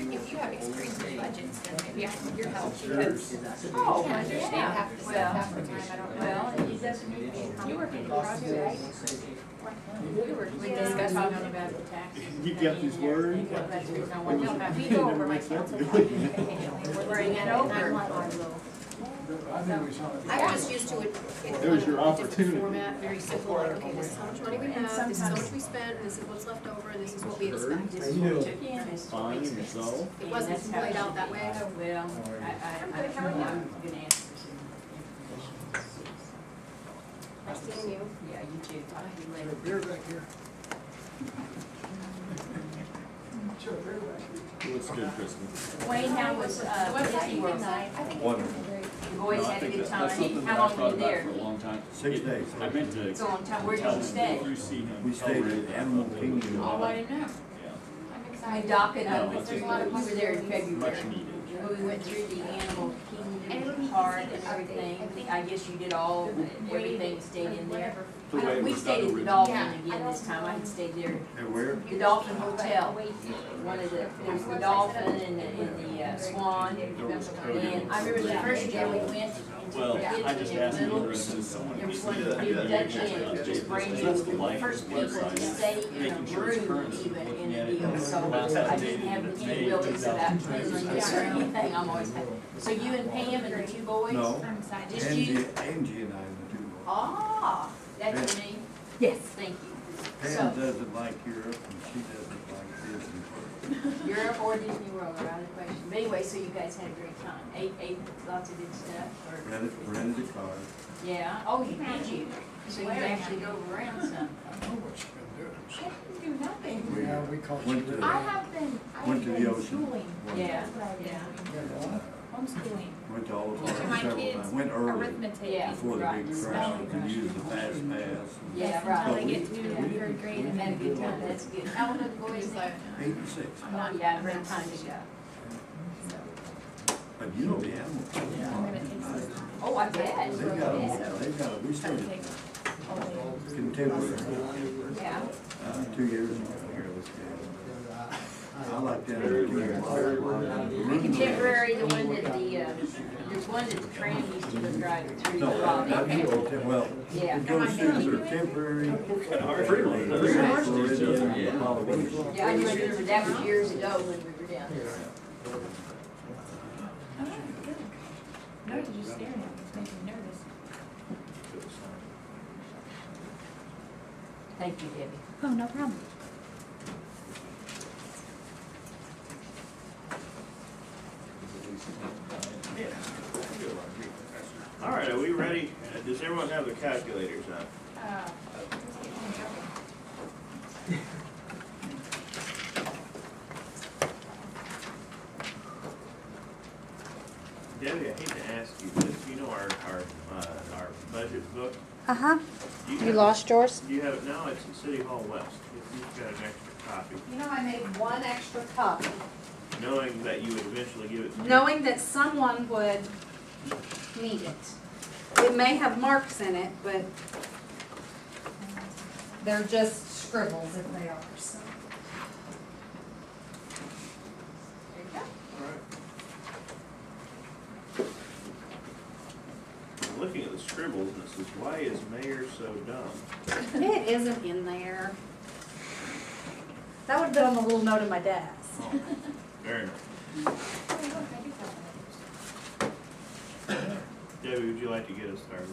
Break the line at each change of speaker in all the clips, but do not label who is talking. always create their budgets, then maybe I need your help because I
Oh,
can't understand half the stuff half the time, I don't know. And
It doesn't need to be a
You work in
complicated
Crosby, right?
process.
We were
We
discussing
discussed all
on
about
about,
the taxes.
You got these words?
That's the reason I
no,
wanted to-
no, we go over my council copy occasionally, we're bringing it over.
I'm just used to it. it-
There's your
on a different
opportunity.
Format, very simple, like, okay, this is how much money we have, this is how much we spent, this is what's left over, and this is what we expect. It
Find yourself.
wasn't laid out that way.
Well, I, I, I don't know, I'm gonna ask for some information.
Nice seeing you.
Yeah, you too, talk to you later.
Beer back here. Sure, beer back here.
Looks good, Kristen.
Wayne, how was, uh, Disney World?
Wonderful.
You boys
No, I
had a
think
good
that- that's
time?
something that
How
I've
long were
thought
you
about
there?
For a long time.
Six days.
I meant to.
It's a long time, where did
tell
you
him,
stay?
You see him.
We
tell
stayed
Ray
at
that I
Animal
thought that
Kingdom.
was-
Oh, I didn't know.
Yeah,
I'm
I
excited.
docked
No,
up, but
it's
there's a lot of, we were there in
much
February.
needed.
When we went through the Animal Kingdom Park and everything, I guess you did all, everything stayed in there.
The way it
We
was
stayed
done
at the
originally.
Dolphin again this time, I had stayed there,
And where?
the Dolphin Hotel. One of the, there's the Dolphin and the, and the uh, Swan.
There was coding.
And I remember the first year we went,
Well, I just asked him,
Little-
if someone.
there was
needs to do
one
that.
new
Yeah,
Dutch
yeah,
inn,
yeah.
just brand new,
That's the
we were the
life
first people to
website.
stay in a
Making sure it's
room
current,
even in
looking
a
at it.
deal, so
That's
I
outdated,
didn't
it's
have
May
any willies about
2000.
prisons or anything, I'm always happy. So you and Pam and the two boys?
No.
I'm excited.
Just you?
Angie, Angie and I were two.
Oh,
Ah, that's your name? Yes. Thank you.
Pam
So,
doesn't like Europe and she doesn't like Disney World.
Europe or Disney World are out of the question. But anyway, so you guys had a great time, ate, ate lots of good stuff, or,
Rented, rented a car.
yeah, oh, you did you? So you actually drove around some.
I know what you've
I didn't do nothing.
We
been doing. Yeah, we caught
went
you.
to-
I have been, I
Went
have
to the
been
ocean.
schooling.
Went-
Yeah,
That's what I've been
yeah.
doing.
Yeah,
Homeschooling.
Went to all
Teaching my
of our several
kids
times. Went early
Arithmetic.
Yeah.
before the
Right.
big crash. We could use the fast pass.
Yeah,
Yes,
right.
Until they get
Yeah.
to third grade
You
and
had a
then.
good time, that's good. How old are the boys now?
Eight and six.
Not yet, around time to go.
But you know the Animal Kingdom.
I'm gonna take some.
Oh, I bet.
They've got,
Yeah.
a- they've got, a- we
I'm
started
taking all
contemporary,
Yeah.
uh, two years ago. I like that.
Contemporary, the one that the, uh, there's one that the train used to go driving through the
No, not
lobby.
you, Tem- well,
uh, Yeah.
it goes through their temporary. Freeland.
Freeland.
Floridian,
Yeah.
Polynesian.
Yeah, I remember that was years ago when we were down there.
the- Oh, good. No, you're just staring at me, it's making me nervous.
Thank you, Debbie.
Oh, no problem.
All right, are we ready? Uh, Does everyone have their calculators out?
Uh, it's getting me nervous.
Debbie, I hate to ask you this, you know our, our, uh, our budget book?
Uh-huh.
Do
You
have-
lost yours?
Do you have it now? It's in City Hall West. If you've got an extra copy,
You know, I made one extra copy,
knowing that you would eventually give it to me.
knowing that someone would need it. It may have marks in it, but they're just scribbles if they are, so. There you go.
All right. I'm Looking at the scribbles, and it says, why is mayor so dumb?
It isn't in there. That would've been on the little note in my desk.
Fair enough.
Oh,
Debbie, would you like to get us started?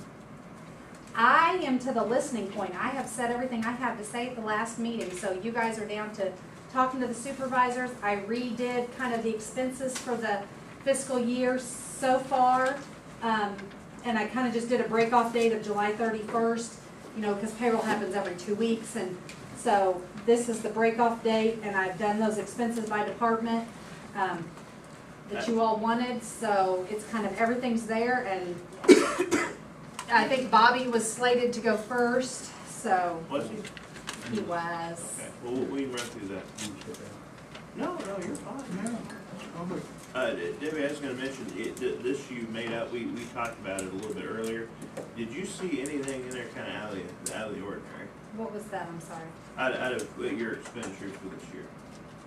I am to the listening point. I have said everything I have to say at the last meeting, so you guys are down to talking to the supervisors. I redid kind of the expenses for the fiscal year so far. Um, and I kind of just did a break-off date of July thirty-first, you know, because payroll happens every two weeks. And so this is the break-off date, and I've done those expenses by department, um, that you all wanted. So it's kind of, everything's there, and I think Bobby was slated to go first, so
Was he?
he was.
Okay, well, we can run through that. No, no, you're fine. Uh, D- Debbie, I was gonna mention, it, th- this you made up, we, we talked about it a little bit earlier. Did you see anything in there kinda out of the, out of the ordinary?
What was that? I'm sorry.
Out, out of uh, your expenditures for this year?